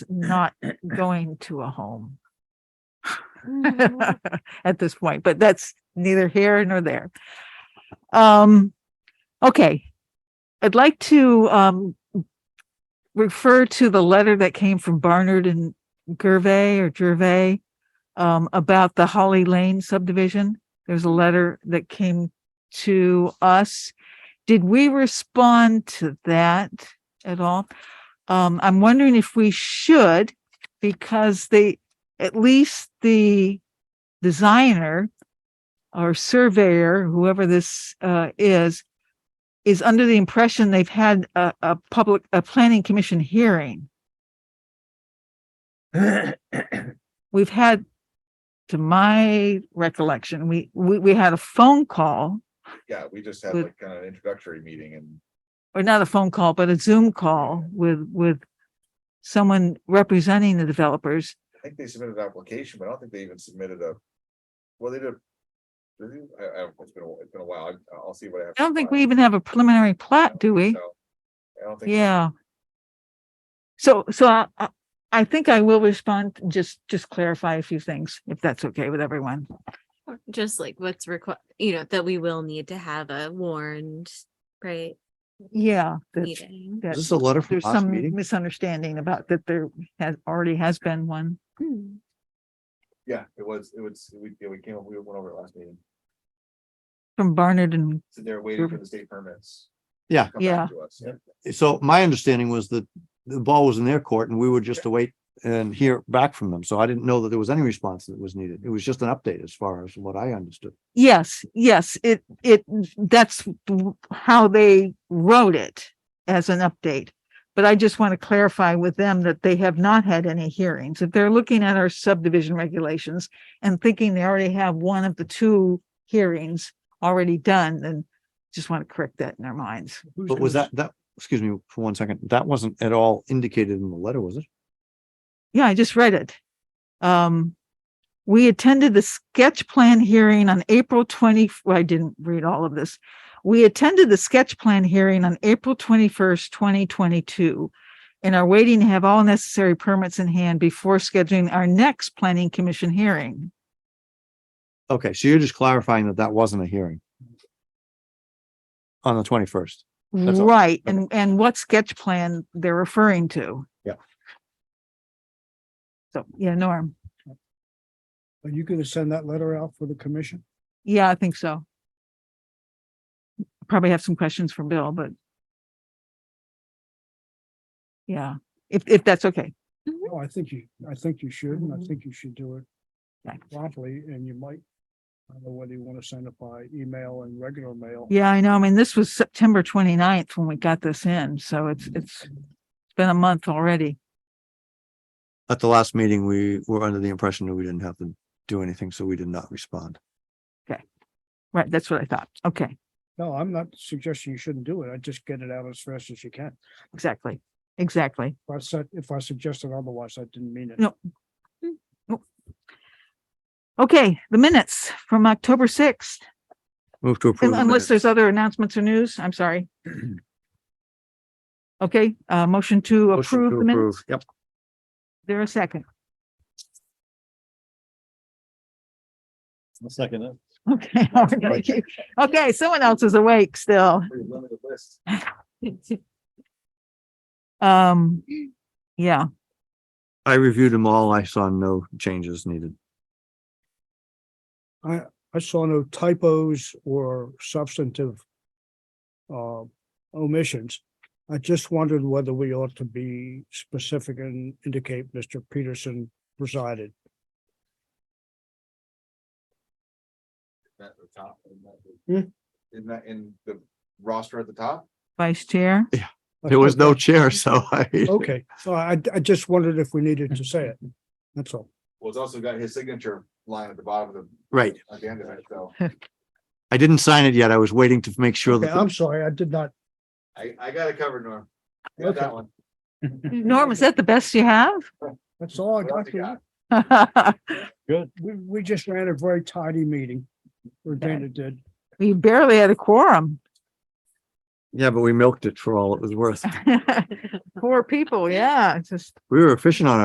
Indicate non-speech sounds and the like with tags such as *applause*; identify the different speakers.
Speaker 1: not going to a home
Speaker 2: *laughs*
Speaker 1: *laughs*
Speaker 2: Mm-hmm.
Speaker 1: at this point, but that's neither here nor there. Um, okay. I'd like to, um, refer to the letter that came from Barnard and Gervais or Gervais um, about the Holly Lane subdivision. There's a letter that came to us. Did we respond to that at all? Um, I'm wondering if we should, because they, at least the designer or surveyor, whoever this uh, is, is under the impression they've had a, a public, a planning commission hearing. We've had, to my recollection, we, we, we had a phone call,
Speaker 3: Yeah, we just had
Speaker 1: Good.
Speaker 3: like an introductory meeting and
Speaker 1: or not a phone call, but a Zoom call with, with someone representing the developers.
Speaker 3: I think they submitted an application, but I don't think they even submitted a. Well, they did. did they? I, I, don't know. it's been, a wh- it's been a while. I- I'll see what. have
Speaker 1: I don't think
Speaker 3: to
Speaker 1: we even have a preliminary plat,
Speaker 3: find.
Speaker 1: do we?
Speaker 3: So, I don't think.
Speaker 1: Yeah. So, so I, I- I think I will respond, just, just clarify a few things, if that's okay with everyone.
Speaker 2: Or Just like what's required, you know, that we will need to have a warned, right,
Speaker 1: Yeah. that-
Speaker 2: meeting.
Speaker 1: that
Speaker 4: Is this a letter from
Speaker 1: There's
Speaker 4: last
Speaker 1: some
Speaker 4: meeting?
Speaker 1: misunderstanding about that there has, already has been one.
Speaker 2: Hmm.
Speaker 3: Yeah, it was, it was, we, yeah, we came, up. we went over it last meeting.
Speaker 1: From Barnard and,
Speaker 3: So they're waiting for
Speaker 1: Mhm.
Speaker 3: the state permits.
Speaker 4: Yeah.
Speaker 3: to come back
Speaker 1: Yeah.
Speaker 3: to us. Yeah.
Speaker 4: So my understanding was that the ball was in their court and we were just to wait and hear back from them. So I didn't know that there was any response that was needed. It was just an update as far as what I understood.
Speaker 1: yes, yes, it, it, that's w- how they wrote it as an update. But I just want to clarify with them that they have not had any hearings. If they're looking at our subdivision regulations and thinking they already have one of the two hearings already done, then just want to correct that in their minds.
Speaker 4: But was that, that, excuse me for one second, that wasn't at all indicated in the letter, was it?
Speaker 1: Yeah, I just read it. Um, we attended the sketch plan hearing on April twenty, well, I didn't read all of this. We attended the sketch plan hearing on April twenty-first, twenty twenty-two. And are waiting to have all necessary permits in hand before scheduling our next planning commission hearing.
Speaker 4: Okay, so you're just clarifying that that wasn't a hearing. On the twenty-first. That's all.
Speaker 1: Right,
Speaker 4: Okay.
Speaker 1: and, and what sketch plan they're referring to.
Speaker 4: Yeah.
Speaker 1: So, yeah, Norm,
Speaker 5: Are you gonna send that letter out for the commission?
Speaker 1: yeah, I think so. Probably have some questions for Bill, but. Yeah, if, if that's okay.
Speaker 5: No, I think you, I think you should, and I
Speaker 1: Mhm.
Speaker 5: think you should do it
Speaker 1: Okay.
Speaker 5: promptly, and you might. I don't know whether you wanna send it by email and regular mail.
Speaker 1: Yeah, I know. I mean, this was September 29th when we got this in, so it's, it's been a month already.
Speaker 4: At the last meeting, we were under the impression that we didn't have to do anything, so we did not respond.
Speaker 1: Right, that's what I thought. Okay,
Speaker 5: No, I'm not suggesting you shouldn't do it. I just get it out as fast as you can.
Speaker 1: exactly, exactly.
Speaker 5: If I said, if I suggested otherwise, I didn't mean it.
Speaker 1: No. Okay, the minutes from October 6th.
Speaker 4: Move to
Speaker 1: Un-
Speaker 4: approve. the
Speaker 1: Unless there's
Speaker 4: minutes.
Speaker 1: other announcements or news, I'm
Speaker 4: *clears throat*
Speaker 1: sorry. Okay, uh, motion to
Speaker 4: Motion
Speaker 1: approve
Speaker 4: to
Speaker 1: the minutes.
Speaker 4: approve. Yep.
Speaker 1: Is There a second. *laughs*
Speaker 5: Second.
Speaker 1: Okay. all right. Okay, someone else is awake still.
Speaker 3: Pretty limited list.
Speaker 1: Um, yeah,
Speaker 4: I reviewed them all. I saw no changes needed.
Speaker 5: I, I saw no typos or substantive. Uh, omissions. I just wondered whether we ought to be specific and indicate Mr. Peterson presided.
Speaker 3: At the top, isn't that the-
Speaker 5: Hmm?
Speaker 3: Isn't that in the roster at the top?
Speaker 1: vice chair.
Speaker 4: There was no chair, so *laughs* I.
Speaker 5: Okay, so I, I just wondered if we needed to say it. That's all.
Speaker 3: Well, it's also got his signature line at the bottom of the,
Speaker 4: Right.
Speaker 3: at the end of it, so.
Speaker 4: I didn't sign it yet. I was waiting to make sure
Speaker 5: Okay, I'm
Speaker 4: that,
Speaker 5: sorry, I did not.
Speaker 3: I, I got it covered, Norm. I Got
Speaker 5: Okay.
Speaker 3: that one.
Speaker 1: Norm, is that the best you have? *laughs*
Speaker 5: That's all I
Speaker 3: What else
Speaker 5: got.
Speaker 3: you got?
Speaker 5: for you. We, we just ran a very tidy meeting. Or Dana did.
Speaker 1: *laughs* You barely had a quorum.
Speaker 4: Yeah, but we milked it for all it was worth.
Speaker 1: Poor people, yeah, it's just.
Speaker 4: We were efficient on our